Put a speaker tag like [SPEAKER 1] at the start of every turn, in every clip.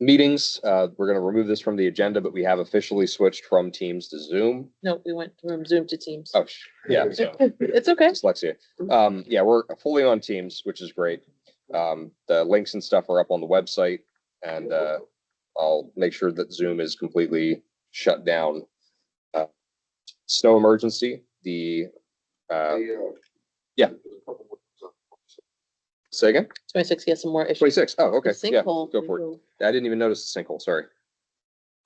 [SPEAKER 1] meetings. Uh, we're going to remove this from the agenda, but we have officially switched from Teams to Zoom.
[SPEAKER 2] No, we went from Zoom to Teams.
[SPEAKER 1] Oh, sh- yeah, so
[SPEAKER 2] It's okay.
[SPEAKER 1] dyslexia. Um, yeah, we're fully on Teams, which is great. Um, the links and stuff are up on the website and, uh, I'll make sure that Zoom is completely shut down. Uh, Snow emergency, the, uh, yeah. say again,
[SPEAKER 2] Twenty-six, yes, some more issues.
[SPEAKER 1] twenty-six. Oh, okay. Yeah,
[SPEAKER 2] Sinkhole.
[SPEAKER 1] go for it. I didn't even notice the sinkhole, sorry.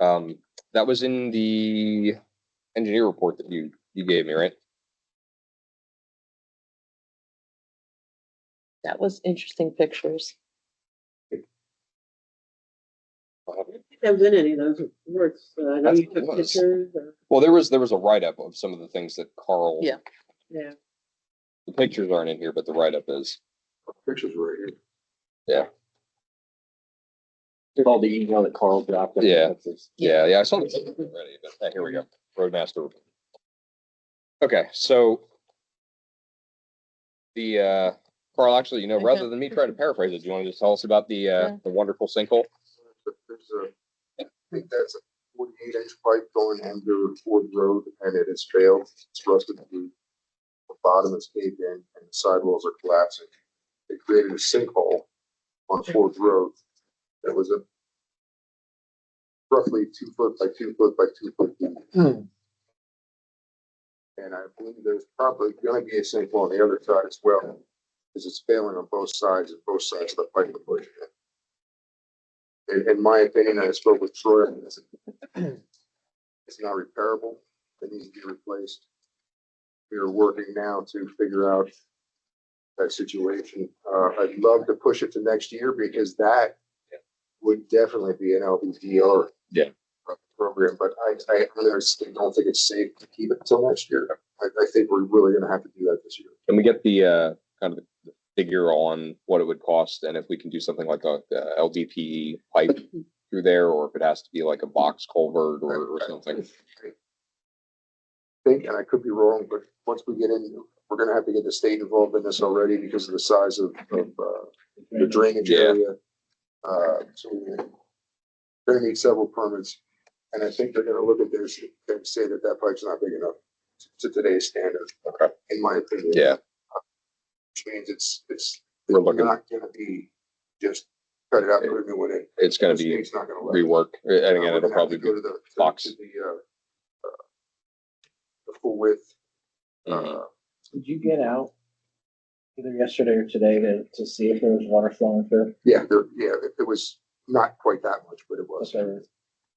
[SPEAKER 1] Um, that was in the engineer report that you, you gave me, right?
[SPEAKER 2] That was interesting pictures.
[SPEAKER 3] I was in any of those reports, but I know
[SPEAKER 1] That's
[SPEAKER 3] you took
[SPEAKER 1] what it was.
[SPEAKER 3] pictures or,
[SPEAKER 1] Well, there was, there was a write-up of some of the things that Carl.
[SPEAKER 2] Yeah.
[SPEAKER 3] yeah.
[SPEAKER 1] The pictures aren't in here, but the write-up is.
[SPEAKER 4] uh, Pictures right here.
[SPEAKER 5] All the email that Carl dropped.
[SPEAKER 1] Yeah. Yeah, yeah, I saw this already, but uh, here we go. Roadmaster. report. Okay, so. The, uh, Carl, actually, you know,
[SPEAKER 2] Okay.
[SPEAKER 1] rather than me try to paraphrase it, do you want to just tell us about the, uh,
[SPEAKER 2] Yeah.
[SPEAKER 1] the wonderful sinkhole?
[SPEAKER 4] There's a, I think that's a forty-eight inch pipe going under Ford Road and it has failed. It's rusted through. The bottom is caved in and the sidewalls are collapsing. It created a sinkhole on Ford Road that was a roughly two foot by two foot by two foot deep. And I believe there's probably gonna be a sinkhole on the other side as well, because it's failing on both sides and both sides of the pipe. are pushing it. In, in my opinion, I spoke with Troy. and I said, It's not repairable. It needs to be replaced. We are working now to figure out that situation. Uh, I'd love to push it to next year because that would definitely be an LBDR.
[SPEAKER 1] Yeah.
[SPEAKER 4] Program, but I, I honestly don't think it's safe to keep it until next year. I, I think we're really gonna have to do that this year.
[SPEAKER 1] Can we get the, uh, kind of the figure on what it would cost and if we can do something like a, uh LDPE pipe through there, or if it has to be like a box culvert or, or something?
[SPEAKER 4] think, and I could be wrong, but once we get in, we're gonna have to get the state involved in this already because of the size of, of, uh, the drainage
[SPEAKER 1] Yeah.
[SPEAKER 4] area. Uh, so we're gonna need several permits, and I think they're gonna look at this and say that that pipe's not big enough to today's standard.
[SPEAKER 1] Okay.
[SPEAKER 4] In my opinion.
[SPEAKER 1] Yeah,
[SPEAKER 4] Which means it's, it's
[SPEAKER 1] We're looking-
[SPEAKER 4] not gonna be just cut it out, put a new one in.
[SPEAKER 1] it's gonna
[SPEAKER 4] The
[SPEAKER 1] be
[SPEAKER 4] state's not gonna let it.
[SPEAKER 1] rework, and
[SPEAKER 4] Uh,
[SPEAKER 1] again,
[SPEAKER 4] we're
[SPEAKER 1] it'll
[SPEAKER 4] gonna have
[SPEAKER 1] probably
[SPEAKER 4] to
[SPEAKER 1] be.
[SPEAKER 4] go to the- to- to
[SPEAKER 1] box.
[SPEAKER 4] The, uh, uh, the full width,
[SPEAKER 1] Mhm.
[SPEAKER 4] uh,
[SPEAKER 5] Did you get out either yesterday or today to, to see if there was water flowing through?
[SPEAKER 4] Yeah, there, yeah, it- it was not quite that much, but it was.
[SPEAKER 5] Whatever.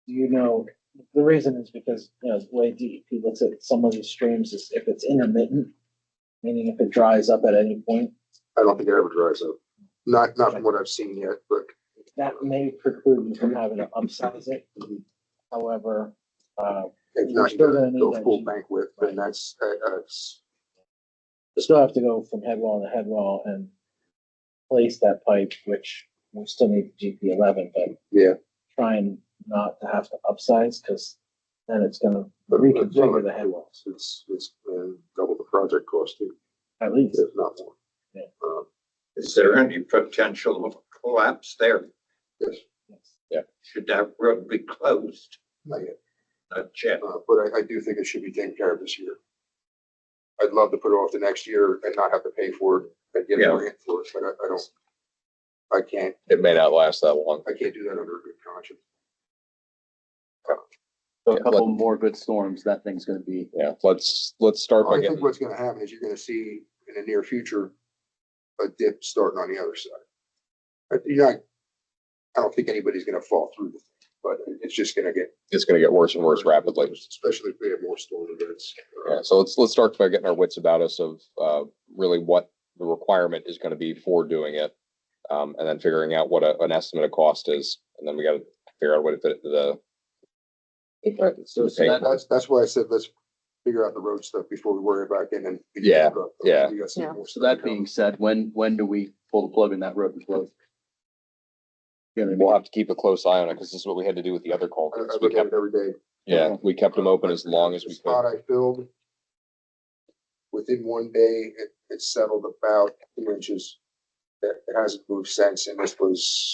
[SPEAKER 5] Do you know, the reason is because, you know, the way DEP looks at some of these streams is if it's intermittent, meaning if it dries up at any point,
[SPEAKER 4] I don't think it ever dries up. Not, not from what I've seen yet, but
[SPEAKER 5] that may preclude you from having to upsize it. However, uh,
[SPEAKER 4] if not, you
[SPEAKER 5] Still gonna
[SPEAKER 4] gotta
[SPEAKER 5] need
[SPEAKER 4] go
[SPEAKER 5] that
[SPEAKER 4] full
[SPEAKER 5] G.
[SPEAKER 4] bank width, then that's, uh, uh, it's-
[SPEAKER 5] you still have to go from headwall to headwall and place that pipe, which we still need GP eleven, but
[SPEAKER 4] yeah.
[SPEAKER 5] trying not to have to upsize, because then it's gonna
[SPEAKER 4] but- but some
[SPEAKER 5] reconfigure
[SPEAKER 4] of
[SPEAKER 5] the headwalls,
[SPEAKER 4] It's, it's uh, double the project cost too,
[SPEAKER 5] at least.
[SPEAKER 4] if not more.
[SPEAKER 5] Yeah.
[SPEAKER 4] Um,
[SPEAKER 6] Is there any potential of collapse there?
[SPEAKER 4] Yes,
[SPEAKER 6] Should that road be closed?
[SPEAKER 4] not yet.
[SPEAKER 6] Not yet.
[SPEAKER 4] Uh, But I, I do think it should be taken care of this year. I'd love to put it off to next year and not have to pay for it and get a
[SPEAKER 6] Yeah.
[SPEAKER 4] grant for it, but I, I don't, I can't
[SPEAKER 1] It may not last that long.
[SPEAKER 4] I can't do that under a good conscience.
[SPEAKER 7] So
[SPEAKER 1] Yeah,
[SPEAKER 7] a couple more good storms, that thing's gonna be.
[SPEAKER 1] Yeah, let's, let's start by
[SPEAKER 4] I think
[SPEAKER 1] getting,
[SPEAKER 4] what's gonna happen is you're gonna see in the near future, a dip starting on the other side. But you're not, I don't think anybody's gonna fall through, but it's just gonna get.
[SPEAKER 1] it's gonna get worse and worse rapidly.
[SPEAKER 4] Especially if we have more storm events. Uh,
[SPEAKER 1] Yeah, so let's, let's start by getting our wits about us of, uh, really what the requirement is gonna be for doing it. Um, and then figuring out what a, an estimate of cost is, and then we gotta figure out what it- the,
[SPEAKER 2] Or-
[SPEAKER 7] So so that,
[SPEAKER 4] That's, that's why I said, let's figure out the road stuff before we worry about getting. in.
[SPEAKER 1] Yeah, yeah.
[SPEAKER 4] We got some
[SPEAKER 2] Yeah.
[SPEAKER 4] more
[SPEAKER 7] so
[SPEAKER 4] stuff
[SPEAKER 7] that
[SPEAKER 4] coming.
[SPEAKER 7] being said, when, when do we pull the plug in that road and close? You know what I mean?
[SPEAKER 1] we'll have to keep a close eye on it, cause this is what we had to do with the other
[SPEAKER 4] I,
[SPEAKER 1] culverts.
[SPEAKER 4] I
[SPEAKER 1] We
[SPEAKER 4] look at
[SPEAKER 1] kept,
[SPEAKER 4] it every day.
[SPEAKER 1] yeah, we kept them open as long as
[SPEAKER 4] The
[SPEAKER 1] we could.
[SPEAKER 4] Spot I filled. Within one day, it, it settled about two inches. It, it hasn't moved since, and this was